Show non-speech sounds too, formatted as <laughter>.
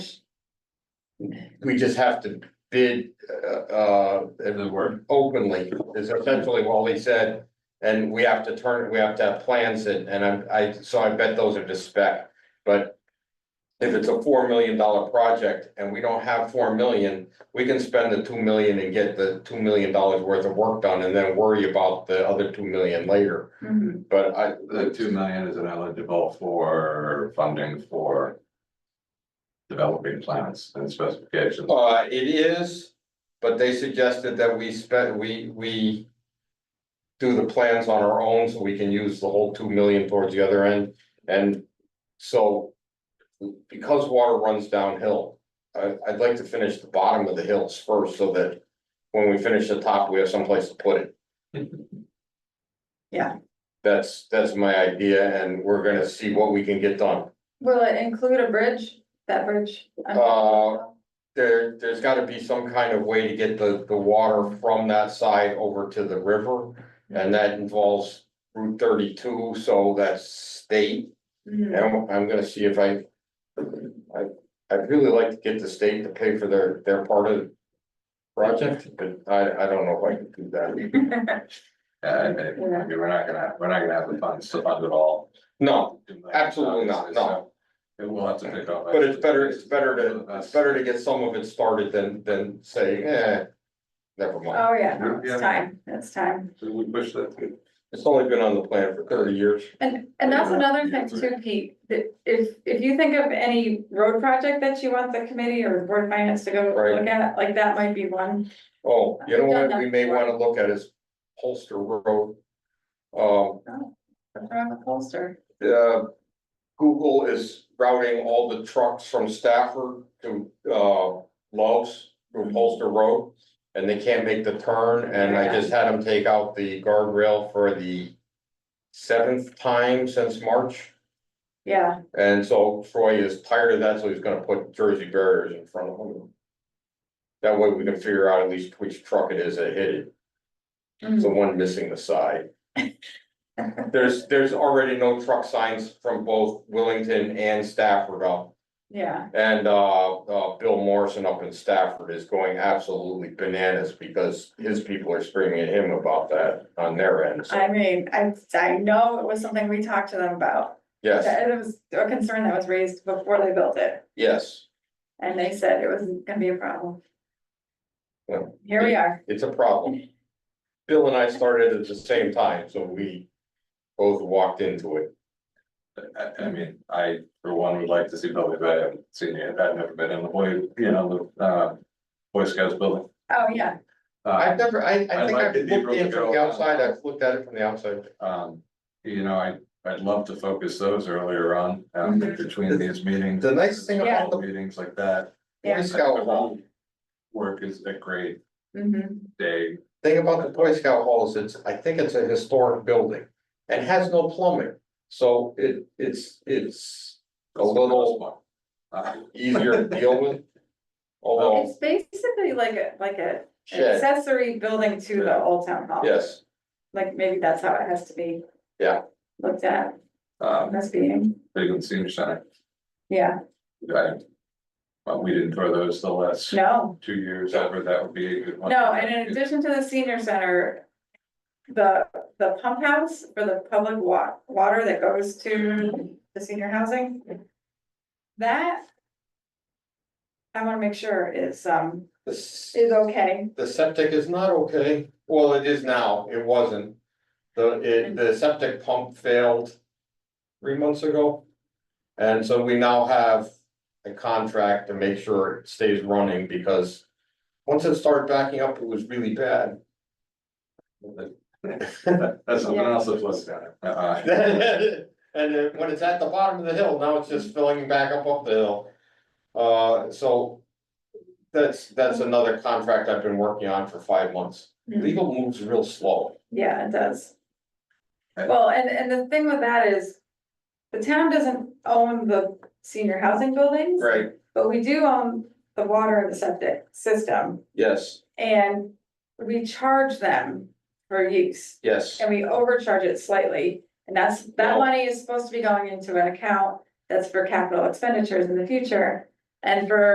we just have to bid, uh, uh, The word. openly, is essentially what he said. And we have to turn, we have to have plans and, and I'm- I, so I bet those are to spec, but. If it's a four million dollar project and we don't have four million, we can spend the two million and get the two million dollars worth of work done and then worry about the other two million later. Mhm. But I, The two million is eligible for funding for. Developing plans and specifications. uh, it is, but they suggested that we spend, we, we. Do the plans on our own so we can use the whole two million towards the other end and so. Because water runs downhill, I, I'd like to finish the bottom of the hills first so that. When we finish the top, we have someplace to put it. Yeah. That's, that's my idea and we're gonna see what we can get done. Will it include a bridge, that bridge? I'm- Uh, There, there's gotta be some kind of way to get the, the water from that side over to the river. And that involves Route thirty-two, so that's state, Mhm. and I'm- I'm gonna see if I. I, I'd really like to get the state to pay for their, their part of. the Project, but I, I don't know if I can do that, <laughs> Uh, I mean, I mean, we're not gonna, we're not gonna have the funds to fund it all. no, absolutely not, no, It will have to pick up. but it's better, it's better to, it's better to get some of it started than, than say, eh. Never mind, Oh, yeah, no, Yeah. it's time, it's time. So We push that through. it's only been on the plan for thirty years. And, and that's Yeah. another thing too, Pete, that if, if you think of any road project that you want the committee or the board of finance to go Right. look at, like that might be one. Oh, you know I've done what, that we may before. wanna look at is Holster Road. Um, What's wrong with Holster? uh, Google is routing all the trucks from Stafford to, uh, Loves through Holster Road. And they can't make the turn, and I just had them take out the guardrail for the seventh time since March. Yeah, And so Troy is tired of that, so he's gonna put Jersey barriers in front of them. That way we can figure out at least which truck it is that hit it. Mm. The one missing the side. There's, there's already no truck signs from both Willington and Stafford up. yeah, And, uh, uh, Bill Morrison up in Stafford is going absolutely bananas because his people are screaming at him about that on their end. So, I mean, I, I know it was something we talked to them about. Yes, That- It was a concern that was raised before they built it, yes, and they said it wasn't gonna be a problem. Well, Here we are, it's a problem. Bill and I started at the same time, so we both walked into it. I, I mean, I, for one, would like to see Billy, but I haven't seen it, I've never been in the boy, you know, the, uh, Boy Scouts building. Uh, oh, yeah, I've never, I, I I'd think like I've to be looked able in to from the go- outside, I've looked at it from the outside. Um, you know, I, I'd love to focus those earlier on, um, Mhm. between these meetings. The nice thing Yeah. about the Meetings like that. Boy yeah, Scout Hall, Work is a great Mm-hmm. mhm, day. thing about the Boy Scout Hall is it's, I think it's a historic building and has no plumbing. So it, it's, it's a little Uh, easier to deal <laughs> with. Although, it's basically like a, like a an shed, accessory building to the old town hall. yes, Like, maybe that's how it has to be. Yeah. Looked at, um, must be, big and senior center, yeah, I, but we didn't throw those the last no, two years ever, that would be a good one. no, and in addition to the senior center. The, the pump house for the public wa- water that goes to the senior housing. That. I wanna make sure is, um, the, s- is okay, the septic is not okay. Well, it is now, it wasn't. The, it, the septic pump failed three months ago. And so we now have a contract to make sure it stays running because once it started backing up, it was really bad. <laughs> That's someone else's list, uh, uh, And then when it's at the bottom of the hill, now it's just filling back up up the hill. Uh, so. That's, that's another contract I've been working on for five months. Mhm. Legal moves real slow. yeah, it does. Okay. Well, and, and the thing with that is. The town doesn't own the senior housing buildings. Right, But we do own the water and the septic system yes, and we charge them for use. yes, And we overcharge it slightly, and that's, that Well- money is supposed to be going into an account that's for capital expenditures in the future. And for